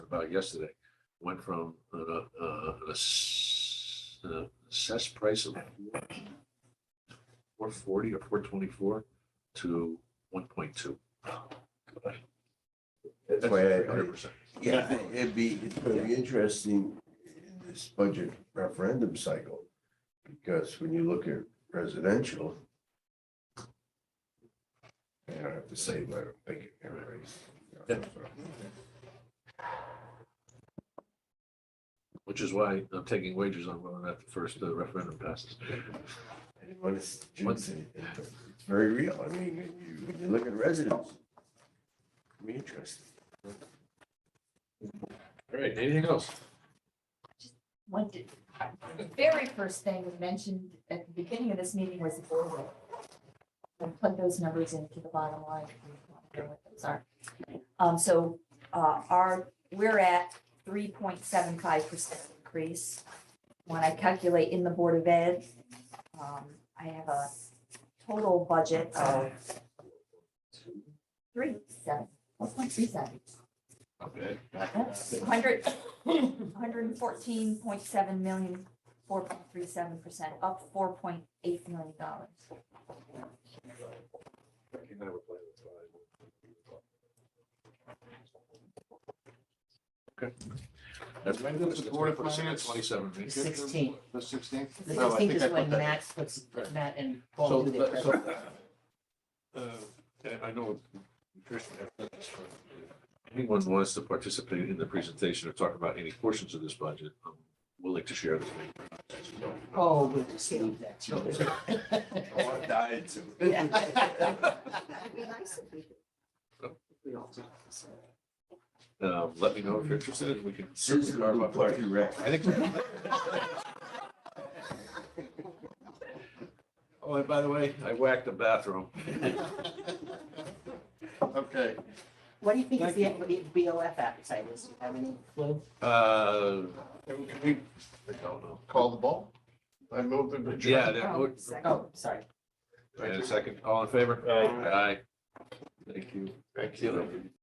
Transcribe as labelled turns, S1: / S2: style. S1: about yesterday, went from an, uh, uh, an ass- uh, assessed price of four forty or four twenty-four to one point two.
S2: That's why I,
S1: Hundred percent.
S2: yeah, it'd be, it's gonna be interesting in this budget referendum cycle. Because when you look at residential. I don't have to say, but I'm thinking everybody's.
S1: Yeah. Which is why I'm taking wagers on whether or not the first uh, referendum passes.
S2: Anyone is, it's it's very real. I mean, when you, when you look at residents. it'd Be interesting.
S1: All right, anything else?
S3: One, did- the very first thing we mentioned at the beginning of this meeting was the boiler. And put those numbers into the bottom line. if you want to know what those are. Um, so, uh, our, we're at three point seven five percent increase. When I calculate in the Board of Ed, um, I have a total budget of three seven, one point three seven.
S1: Okay.
S3: Hundred, hundred and fourteen point seven million, four point three seven percent, up four point eight million dollars.
S1: Okay. That's
S4: When does the Board of Finance-
S1: Twenty-seven.
S4: The
S1: right?
S4: sixteenth. Oh, The sixteenth?
S5: The sixteenth is when Matt puts,
S4: Right.
S5: Matt and
S1: So,
S5: Paul do their
S1: that- so,
S5: presentation.
S1: uh, I- I know. nutrition has done this, but if Anyone wants to participate in the presentation or talk about any portions of this budget, I'm willing to share this.
S5: Oh, we'll just leave that to
S2: I want to
S5: you.
S2: die into it.
S1: Uh, let me know if you're interested and we can.
S2: Susan, our party rep.
S1: I think. Oh, and by the way, I whacked the bathroom.
S4: Okay.
S5: What do you think is the, what the BOF appetite is? Do you have any clue?
S1: Uh,
S4: Can we
S1: I don't know.
S4: call the ball? I move the.
S1: Yeah, Uh, that would,
S5: Oh, sorry.
S1: and a second, all in favor?
S4: Aye.
S1: Aye. Thank you.
S4: Thank
S1: you.